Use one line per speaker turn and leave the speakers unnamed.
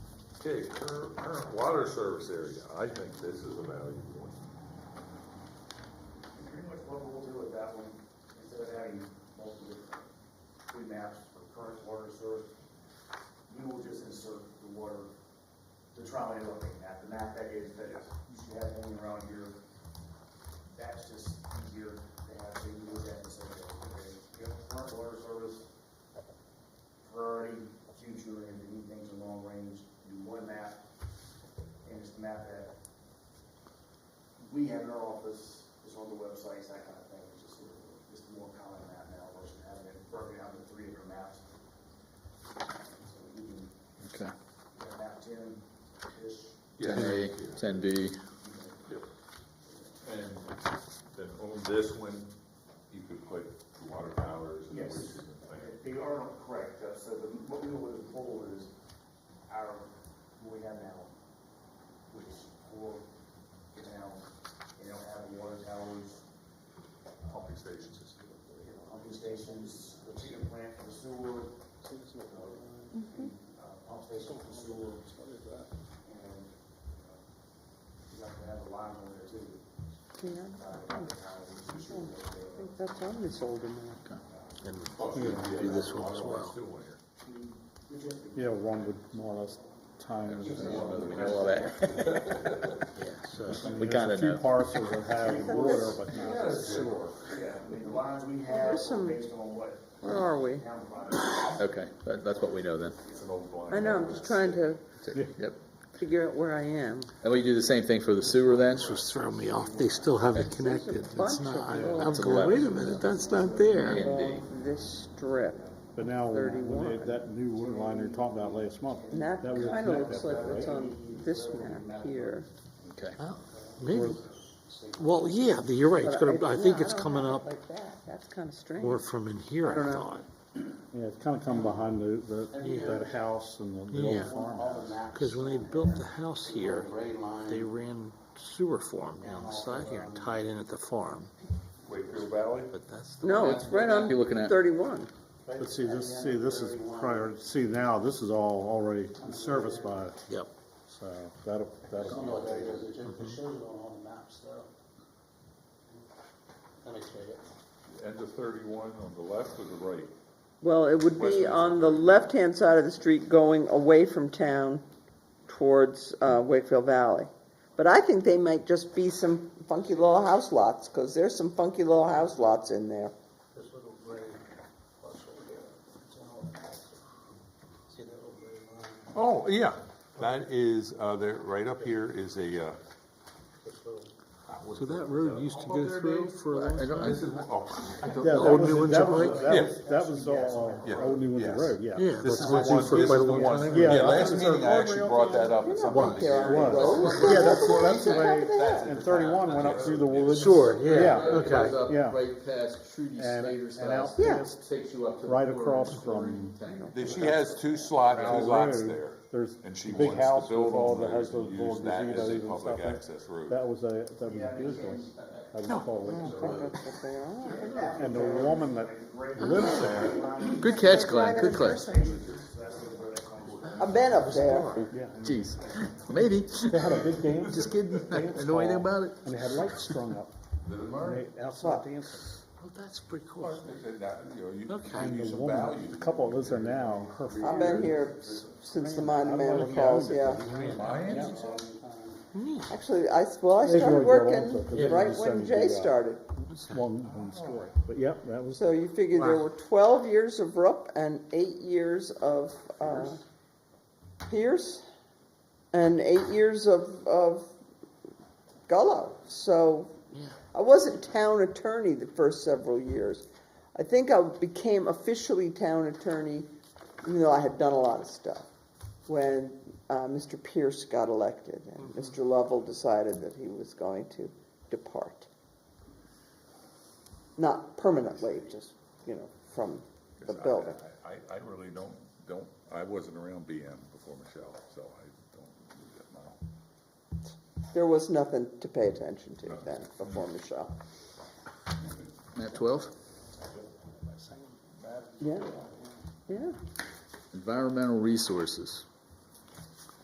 Okay, current, current water service area, I think this is a value point.
Pretty much what we'll do with that one, instead of having multiple different grid maps for current water source, you will just insert the water, the trauma you're looking at, the map that is, that is, you should have going around here. That's just easier to have, so you look at and say, okay, we have current water service, priority, future, and if you need things in long range, do one map, and it's the map that we have in our office, is on the websites, that kind of thing, it's just, sort of- it's more common map now versus having it broken down into three different maps. So you can,
Okay.
you have map ten-ish,
Yeah.
Ten A, ten B,
And
Then on this one,
you could put water towers and
Yes.
waste treatment plant.
They are correct, uh, so the, what we would have pulled is our, what we have now, which is four towns, they don't have water towers,
pumping stations is
you know, pumping stations, the treatment plant for the sewer, uh, pump station for the sewer, and, uh, you have to have a line over there too.
Yeah,
uh, to have the towers, the sewer,
I
uh,
think that's on this older map.
And
do this one as well.
Still one here.
we just-
Yeah, one would more or less time.
we know all that. We kinda
There's a few
know.
parcels that have water, but
Yeah,
not
that's good.
sewer.
Yeah, I mean, the lines we have
There's
are
some-
based on what
Where are we?
town provides.
Okay, that, that's what we know then.
It's an old blind.
I know, I'm just trying to
Yep.
figure out where I am.
And we do the same thing for the sewer then?
Just throw me off, they still have it connected,
bunch
it's not, I-
of
I'm
them.
going, wait a minute, that's not there.
Indeed.
Of This strip,
But now, when when they,
31.
that new water line they were talking about last month,
and that
that would
kind of
connect
looks
that,
like
right?
what's on this map here.
Okay.
Well, Maybe, well, yeah, but you're right, it's
But
gonna, I
yeah,
think it's
don't
coming
have it
up
Like that, that's kind of strange.
more from in here,
I don't
I
know.
thought.
Yeah, it's kinda come behind the, the, that house and the- the
Yeah.
old farmhouse.
Cause when they built the house here, they ran sewer form down the side here and tied in at the farm,
Wakefield Valley?
but that's the.
No, it's right on
You're looking at-
thirty-one.
But see, this, see, this is prior, see now, this is all already serviced by,
Yep,
so that'll, that'll.
know what that is, it just, it shows it on all the maps though. That makes me,
End of thirty-one on the left or the right?
Well, it would be on the left-hand side of the street going away from town towards uh, Wakefield Valley. But I think they might just be some funky little house lots, because there's some funky little house lots in there.
this little gray parcel here, it's on all the maps. See that little gray line,
Oh, yeah, that is, uh, there, right up here is a, uh,
this little,
so that road used to go through for a long time.
this is, oh,
Yeah,
The
that
old
was-
New Windsor
that was-
Pike,
That
Yeah.
was, that was all,
Yeah.
uh, old New Windsor
Yes.
Road, yeah.
yeah,
this
that's
is the
went through
one,
for
this is
quite a
the
long
one.
time.
Yeah,
Yeah,
that
last
was
meeting I actually brought that up at
You're
some
not up
point.
there on
It
the road.
was. Yeah, that's, that's the way, and thirty-one went up through the woods.
Sure, yeah,
Yeah.
okay.
Yeah.
Right past Trudy
And-
Slater's
and
house.
out
Yeah.
past-
Takes you up to. the
right
corner
across
of the
from
tank.
She has two slot, two
Road,
lots there,
There's
and she
a big
wants
house
to
with
build
all
on
the,
those
has those
and
little
use that as a
gazebos and
public
stuff.
access road.
That was a, that was business. That was
Mm,
called it. And the woman that lives there,
Good catch, Glenn, good catch.
I've been up there.
Jeez, maybe.
they had a big dance.
Just kidding. I don't know anything about it.
And they had lights strung up. And they- Outside dancing.
Well, Oh, that's pretty cool.
That, you know, you-
Okay.
you
And
use
the
a
woman,
value.
the couple that lives there now, her.
I've been here s- since the Monument
Yeah.
Falls, yeah.
Neat.
Actually, I, s- well, I
They
started
really got into it, 'cause they
working right
just
when
started to
Jay
do that.
started.
One, one story. But yep, that was,
So you figure there were twelve years of Rupp and eight years of, uh, Pierce, and eight years of, of Gullo. So I wasn't town attorney the first several years. I think I became officially town attorney, even though I had done a lot of stuff, when, uh, Mr. Pierce got elected and Mr. Lovell decided that he was going to depart not permanently, just, you know, from the
I-
building.
I, I really don't, don't, I wasn't around BM before Michelle, so I don't know.
There was nothing to pay attention to then before Michelle.
Map twelve,
Yeah, yeah.
environmental resources.